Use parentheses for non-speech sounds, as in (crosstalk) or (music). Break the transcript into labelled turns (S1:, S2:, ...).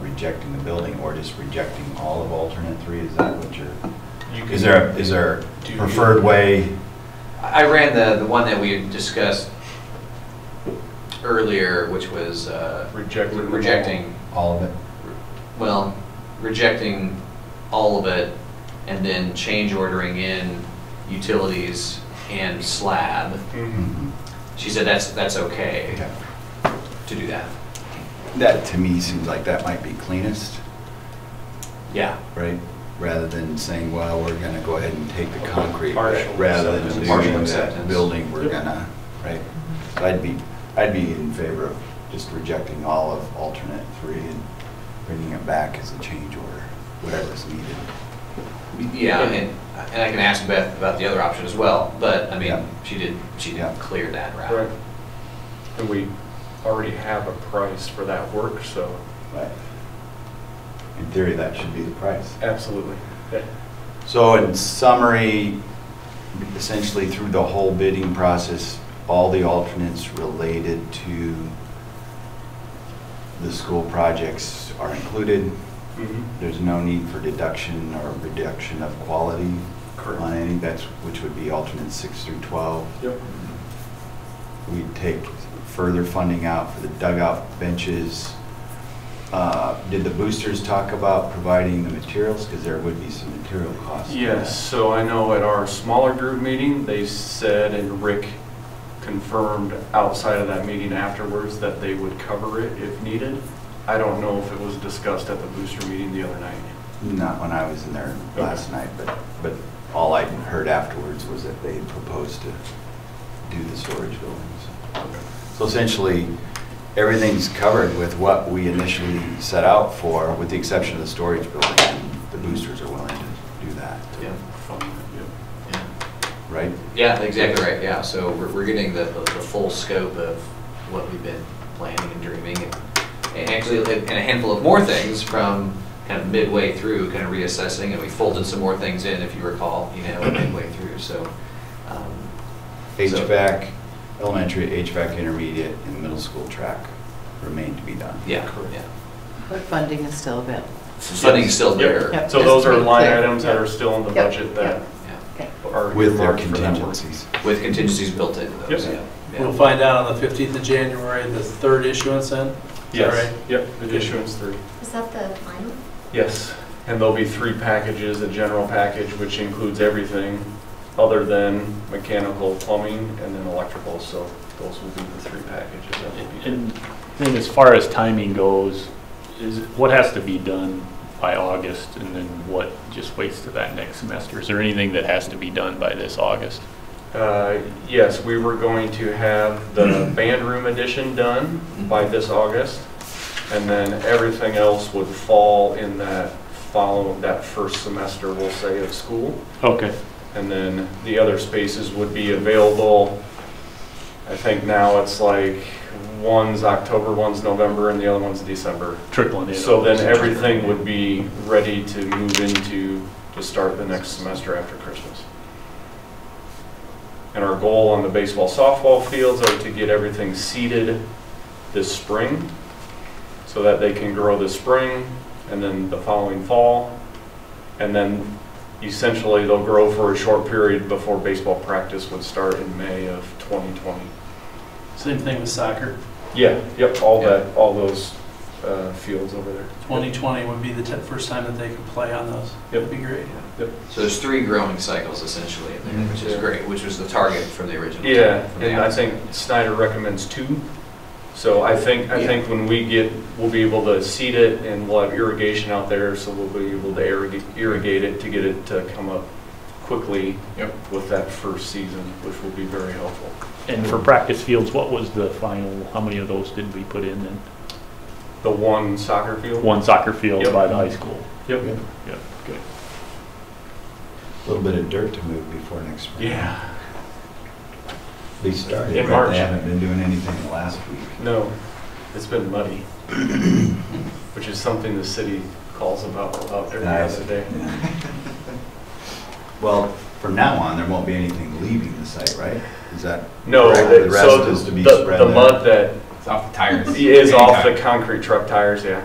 S1: rejecting the building or just rejecting all of alternate three? Is that what you're,
S2: You
S1: is
S2: can-
S1: there, a- is there a
S2: Do you-
S1: preferred way?
S3: I ran the, the one that we had discussed earlier, which was, uh.
S2: Rejecting them all.
S3: Rejecting,
S1: All of it?
S3: well, rejecting all of it and then change ordering in utilities and slab.
S2: Mhm.
S1: Mhm.
S3: She said that's, that's okay
S1: Okay.
S3: to do that.
S1: That, to me, seems like that might be cleanest,
S3: Yeah.
S1: right? Rather than saying, well, we're going to go ahead and take the concrete.
S2: Partial
S1: Rather
S2: acceptance.
S1: than
S3: Partial
S1: doing that
S3: acceptance.
S1: building, we're
S2: Yep. Mm-hmm.
S1: gonna, right? So I'd be, I'd be in favor of just rejecting all of alternate three and bringing it back as a change order, whatever's needed.
S3: Yeah, and, and I can ask Beth about the other option as well, but, I
S1: Yeah.
S3: mean, she did, she
S1: Yeah.
S3: did clear that route.
S2: Right. And we already have a price for that work, so
S1: Right. In theory, that should be the price.
S2: absolutely. That-
S1: So in summary, essentially through the whole bidding process, all the alternates related to the school projects are included.
S2: mhm.
S1: There's no need for deduction or reduction of quality on any, that's, which would be alternates six through 12.
S2: Yep.
S1: We'd take further funding out for the dugout benches. Uh, Did the boosters talk about providing the materials? Because there would be some material costs. for
S2: Yes, so I know at our smaller group meeting, they said, and Rick confirmed outside of that meeting afterwards, that they would cover it if needed. I don't know if it was discussed at the booster meeting the other night.
S1: that. Not when I was in there
S2: Okay.
S1: last night, but, but all I heard afterwards was that they had proposed to do the storage buildings. So essentially, everything's covered with what we initially set out for, with the exception of the storage building. and The boosters are willing to do that,
S3: Yeah,
S2: Fun, yep.
S3: yeah.
S1: right?
S3: Yeah, exactly right, yeah, so we're, we're getting the, the the full scope of what we've been planning and dreaming, and- and actually, and a handful of more things from kind of midway through, kind of reassessing, and we folded some more things in, if you recall, you know,
S2: (clears throat)
S3: midway through, so. um, so-
S1: HVAC, elementary, HVAC intermediate, and middle school track remain to be done.
S3: Yeah, yeah.
S4: But funding is still available.
S3: Funding's still
S2: Yep.
S3: there.
S4: Yep.
S2: So those are line
S4: Yep.
S2: items that are still in the
S4: Yep.
S2: budget that
S3: yeah,
S4: Okay.
S2: are.
S1: With their
S2: earmarked for that work.
S1: contingencies.
S3: With contingencies built into those,
S2: Yep.
S3: yeah. yeah.
S5: We'll find out on the 15th of January, the third issuance then? Is that
S2: Yes,
S5: right?
S2: yep, the issuance three.
S6: Is that the final?
S2: Yes, and there'll be three packages, a general package, which includes everything other than mechanical, plumbing, and then electrical, so those will be the three packages that will be.
S7: And then as far as timing goes, is, what has to be done by August and then what just waits to that next semester? Is there anything that has to be done by this August?
S2: Uh, Yes, we were going to have the band room addition done by this August, and then everything else would fall in that follow, that first semester, we'll say, of school.
S7: Okay,
S2: And then the other spaces would be available, I think now it's like, one's October, one's November, and the other one's December.
S7: trickling in.
S2: So then everything would be ready to move into, to start the next semester after Christmas. And our goal on the baseball softball fields are to get everything seeded this spring so that they can grow this spring and then the following fall. And then essentially they'll grow for a short period before baseball practice would start in May of 2020.
S5: Same thing with soccer.
S2: Yeah, yep, all
S3: Yeah.
S2: that, all those uh, fields over there.
S5: 2020 would be the ti- first time that they could play on those.
S2: Yep.
S5: That'd be great.
S3: So there's three growing cycles essentially in there, which is
S2: Yeah.
S3: great, which was the target from the original.
S2: Yeah,
S3: from the
S2: and I
S3: outset.
S2: think Snyder recommends two. So I think, I
S3: Yeah.
S2: think when we get, we'll be able to seed it and we'll have irrigation out there, so we'll be able to irrigate- irrigate it to get it to come up quickly
S3: Yep.
S2: with that first season, which will be very helpful.
S7: And for practice fields, what was the final, how many of those did we put in then?
S2: The one soccer field?
S7: One soccer field
S2: Yep.
S7: by the high school?
S2: Yep.
S7: Yep, good.
S1: A little bit of dirt to move before next spring.
S2: Yeah,
S1: They started,
S2: In
S1: but
S2: March.
S1: they haven't been doing anything last week.
S2: no, it's been muddy, (clears throat) which is something the city calls about, about every
S1: Nice.
S2: other day.
S1: Well, from now on, there won't be anything leaving the site, right? Is that?
S2: No,
S1: correct?
S2: the-
S1: The rest
S2: so
S1: is to be
S2: the,
S1: spread
S2: the
S1: there.
S2: mud that
S3: It's off the tires.
S2: is off the concrete truck tires, yeah.